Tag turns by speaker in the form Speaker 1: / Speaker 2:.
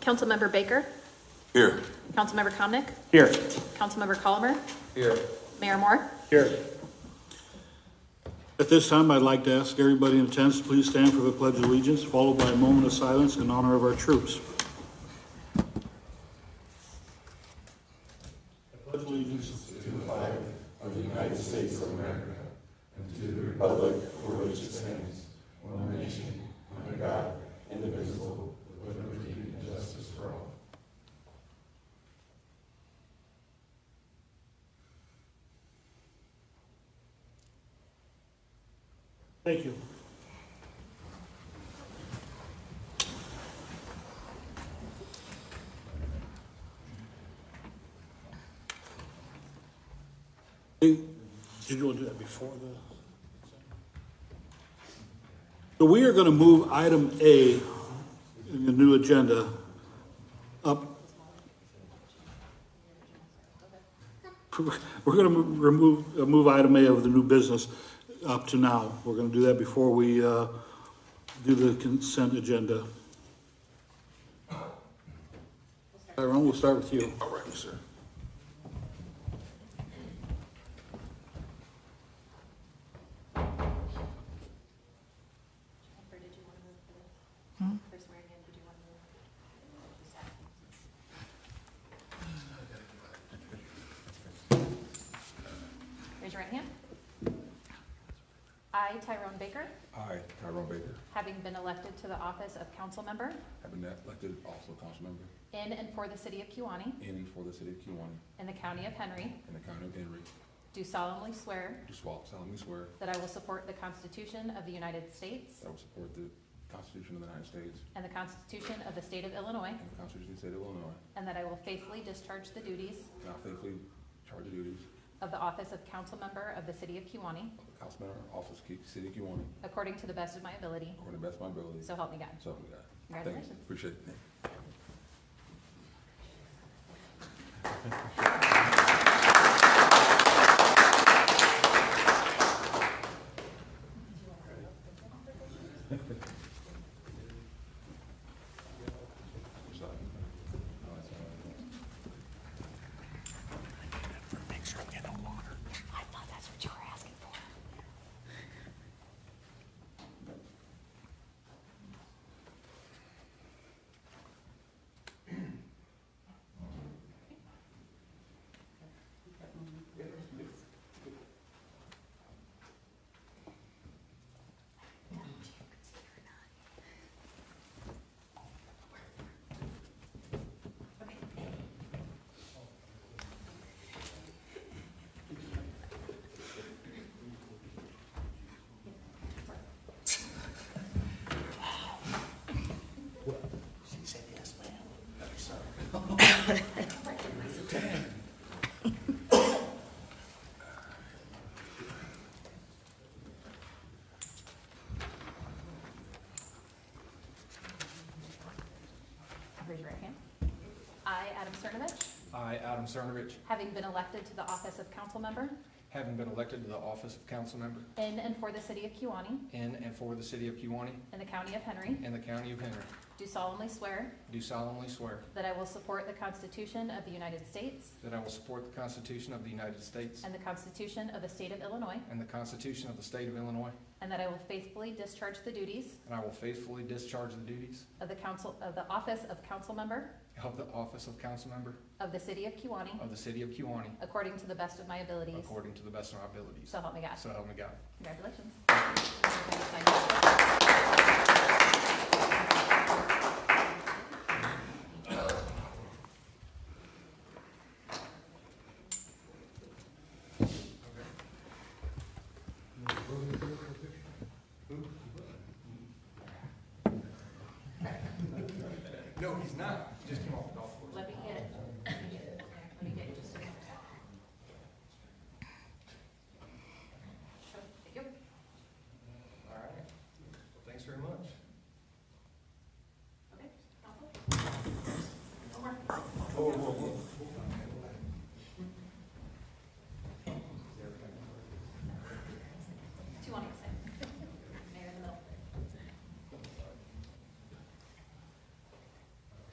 Speaker 1: Councilmember Baker,
Speaker 2: Here.
Speaker 1: Councilmember Comnic,
Speaker 3: Here.
Speaker 1: Councilmember Colomer,
Speaker 2: Here.
Speaker 1: Mayor Moore.
Speaker 3: Here.
Speaker 4: At this time, I'd like to ask everybody in attendance to please stand for the Pledge of Allegiance, followed by a moment of silence in honor of our troops. I pledge allegiance Thank you. Did you want to do that before the? So we are going to move item A in the new agenda up. We're going to remove, uh, move item A of the new business up to now. We're going to do that before we uh, do the consent agenda. Tyrone, we'll start with you.
Speaker 2: All right, sir.
Speaker 1: Raise your right hand. I, Tyrone Baker,
Speaker 2: I, Tyrone Baker,
Speaker 1: having been elected to the office of council member
Speaker 2: have been elected also council member
Speaker 1: in and for the city of Kiwanee
Speaker 2: in and for the city of Kiwanee
Speaker 1: in the county of Henry,
Speaker 2: and the county of Henry,
Speaker 1: do solemnly swear
Speaker 2: do swall- solemnly swear
Speaker 1: that I will support the Constitution of the United States
Speaker 2: that I will support the Constitution of the United States
Speaker 1: and the Constitution of the state of Illinois,
Speaker 2: and the Constitution of the state of Illinois,
Speaker 1: and that I will faithfully discharge the duties
Speaker 2: and I faithfully charge the duties
Speaker 1: of the office of council member of the city of Kiwanee
Speaker 2: of the council member, office, of Ki- city of Kiwanee,
Speaker 1: according to the best of my ability.
Speaker 2: according to the best of my ability.
Speaker 1: So help me God.
Speaker 2: So help me God. Thank you.
Speaker 1: Congratulations.
Speaker 2: Appreciate it.
Speaker 1: I thought that's what you were asking for. Raise your right hand. I, Adam Cernovich,
Speaker 5: I, Adam Cernovich,
Speaker 1: having been elected to the office of council member
Speaker 5: having been elected to the office of council member
Speaker 1: in and for the city of Kiwanee
Speaker 5: in and for the city of Kewanee
Speaker 1: in the county of Henry,
Speaker 5: and the county of Henry,
Speaker 1: do solemnly swear
Speaker 5: do solemnly swear
Speaker 1: that I will support the Constitution of the United States
Speaker 5: that I will support the Constitution of the United States
Speaker 1: and the Constitution of the state of Illinois,
Speaker 5: and the Constitution of the state of Illinois,
Speaker 1: and that I will faithfully discharge the duties
Speaker 5: and I will faithfully discharge the duties
Speaker 1: of the council, of the office of council member
Speaker 5: of the office of council member
Speaker 1: of the city of Kiwanee
Speaker 5: of the city of Kewanee
Speaker 1: according to the best of my abilities.
Speaker 5: according to the best of my abilities.
Speaker 1: So help me God.
Speaker 5: So help me God.
Speaker 1: Congratulations.
Speaker 5: No, he's not. Just come off the golf course.
Speaker 1: Let me get it. Let me get it. Let me get it just a minute. Thank you.
Speaker 5: All right. Well, thanks very much.
Speaker 1: Okay. Council?
Speaker 5: Whoa, whoa, whoa.